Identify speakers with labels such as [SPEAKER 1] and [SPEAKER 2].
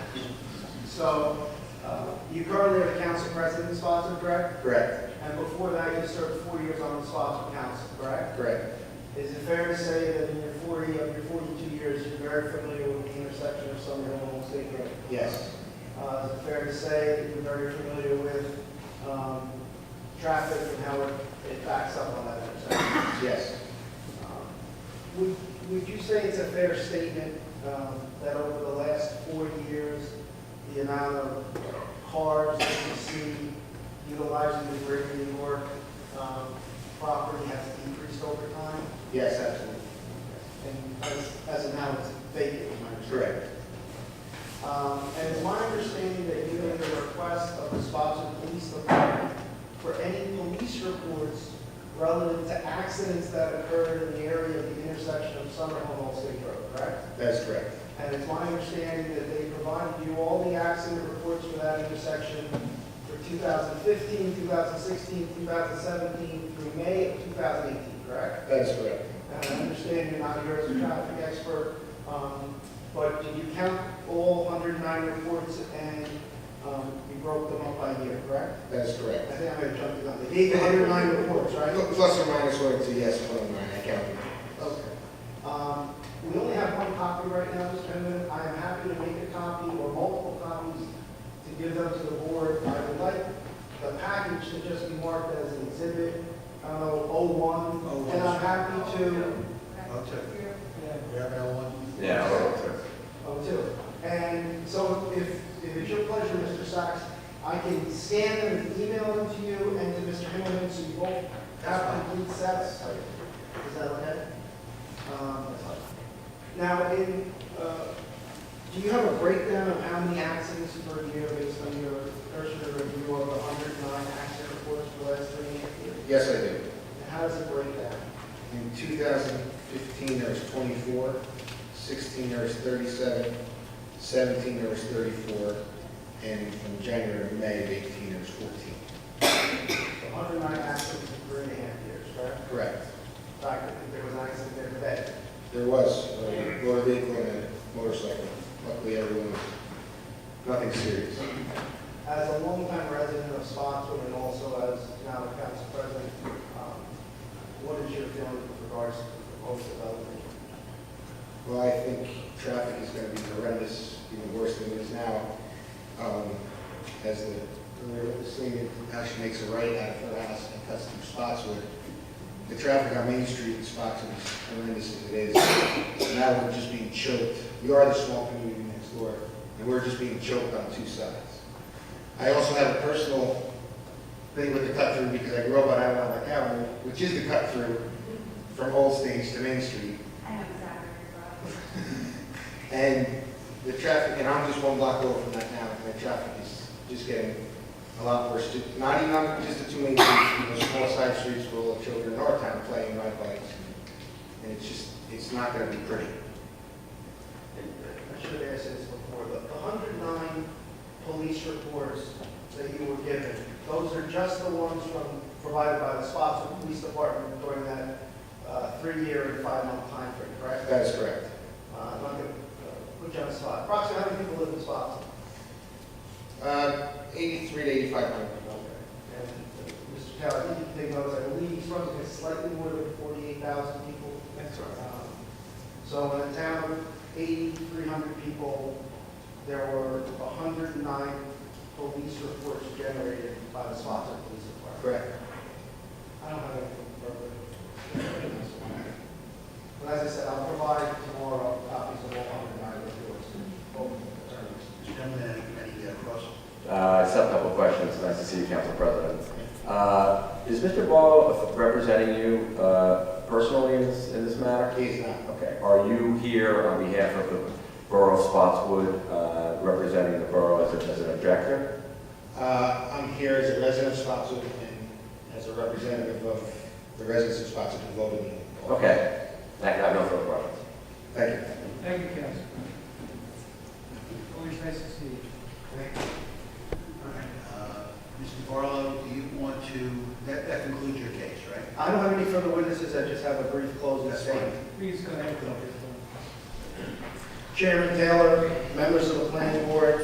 [SPEAKER 1] So uh, you currently are the council president in Spotswood, correct?
[SPEAKER 2] Correct,
[SPEAKER 1] And before that, you served four years on the Spotswood Council, correct?
[SPEAKER 2] correct.
[SPEAKER 1] Is it fair to say that in your 40, of your 42 years, you're very familiar with the intersection of Summer Hill and State Road?
[SPEAKER 2] Yes,
[SPEAKER 1] Uh, Is it fair to say that you're very familiar with um, traffic and how it it backs up on that intersection?
[SPEAKER 2] yes,
[SPEAKER 1] Um, Would, would you say it's a fair statement um, that over the last four years, the amount of cars that you see utilizing the Greater New York um, property has decreased over time?
[SPEAKER 2] yes, absolutely.
[SPEAKER 1] And as, as of now, it's vacant, is my understanding.
[SPEAKER 2] Correct,
[SPEAKER 1] Um, And it's my understanding that you made a request of the Spotswood Police Department for any police reports relative to accidents that occurred in the area of the intersection of Summer Home and State Road, correct?
[SPEAKER 2] that's correct.
[SPEAKER 1] And it's my understanding that they provided you all the accident reports for that intersection for 2015, 2016, 2017, through May of 2018, correct?
[SPEAKER 2] That's correct.
[SPEAKER 1] And I understand you're not here as a traffic expert, um, but did you count all 109 reports and um, you broke them up by year, correct?
[SPEAKER 2] That's
[SPEAKER 1] I
[SPEAKER 2] correct.
[SPEAKER 1] think I might have jumped the gun. They gave you 109 reports, right?
[SPEAKER 2] Plus or minus one or two, yes, one or nine, I counted.
[SPEAKER 1] Okay. Um, We only have one copy right now, Mr. Chairman. I am happy to make a copy or multiple copies to give them to the board. I would like the package to just be marked as an exhibit, I don't know, 01, and I'm happy to
[SPEAKER 3] I'll check.
[SPEAKER 1] yeah,
[SPEAKER 3] We have L one?
[SPEAKER 4] Yeah, I'll check.
[SPEAKER 1] Oh, two. And so if, if it's your pleasure, Mr. Sacks, I can scan them and email them to you and to Mr. Hamilton, so you both have complete sets. Is that okay? Um, Now, in, uh, do you have a breakdown of how many accidents per year based on your cursory review of the 109 accident reports for the last three years?
[SPEAKER 2] Yes, I do.
[SPEAKER 1] And how does it break down?
[SPEAKER 2] In 2015, there was 24, 16, there was 37, 17, there was 34, and from January to May of 18, there was 14.
[SPEAKER 1] The 109 accidents in three and a half years, correct?
[SPEAKER 2] Correct.
[SPEAKER 1] Doctor, there was an accident there today.
[SPEAKER 2] There was a motor vehicle and a motorcycle. Luckily, everyone was, nothing serious.
[SPEAKER 1] As a longtime resident of Spotswood and also as now the council president, um, what is your feeling with regards to the proposed development?
[SPEAKER 2] Well, I think traffic is going to be horrendous, even worse than it is now. Um, As the, this thing that actually makes a right out of her house and cuts through Spotswood. The traffic on Main Street in Spotswood is horrendous as it is. Now we're just being choked. We are the small community next door, and we're just being choked on two sides. I also have a personal thing with the cut through because I grew up on Avalon Avenue, which is the cut through from Old Stage to Main Street.
[SPEAKER 5] I know exactly where
[SPEAKER 2] And the traffic, and I'm just one block over from that now, and the traffic is just getting a lot worse. Ju- Not even on just the two main streets, those small side streets where all the children in our town play and ride bikes. And it's just, it's not gonna be pretty.
[SPEAKER 1] I should have asked this before, but the 109 police reports that you were given, those are just the ones from, provided by the Spotswood Police Department during that uh, three-year and five-month timeframe, correct?
[SPEAKER 2] That is correct.
[SPEAKER 1] Uh, I'm not going to put you on the spot. Approximately how many people live in Spotswood?
[SPEAKER 2] Uh, eighty-three to eighty-five hundred.
[SPEAKER 1] And uh, Mr. Tower, I think you think those, I believe he's running at slightly more than 48,000 people. That's right. So in a town of 8,300 people, there were 109 police reports generated by the Spotswood Police Department.
[SPEAKER 2] Correct.
[SPEAKER 1] I don't have anything further. But as I said, I'll provide tomorrow copies of all 109 reports. Both attorneys.
[SPEAKER 3] Mr. Chairman, any, any uh, cross?
[SPEAKER 4] Uh, I just have a couple of questions. Nice to see you, Council President. Uh, Is Mr. Ball representing you uh, personally in this, in this matter?
[SPEAKER 2] He's not.
[SPEAKER 4] Okay. Are you here on behalf of the Borough of Spotswood, uh, representing the borough as a- as an objector?
[SPEAKER 2] Uh, I'm here as a resident of Spotswood and as a representative of the residents of Spotswood who voted me.
[SPEAKER 4] Okay. I have no further questions.
[SPEAKER 2] Thank you.
[SPEAKER 6] Thank you, Council. Always nice to see you.
[SPEAKER 3] All right, uh, Mr. Barlow, do you want to, that, that concludes your case, right?
[SPEAKER 1] I don't have any further witnesses, I just have a brief closing
[SPEAKER 3] That's
[SPEAKER 1] statement.
[SPEAKER 3] fine.
[SPEAKER 6] Please go ahead with your
[SPEAKER 1] Chairman Taylor, members of the planning board,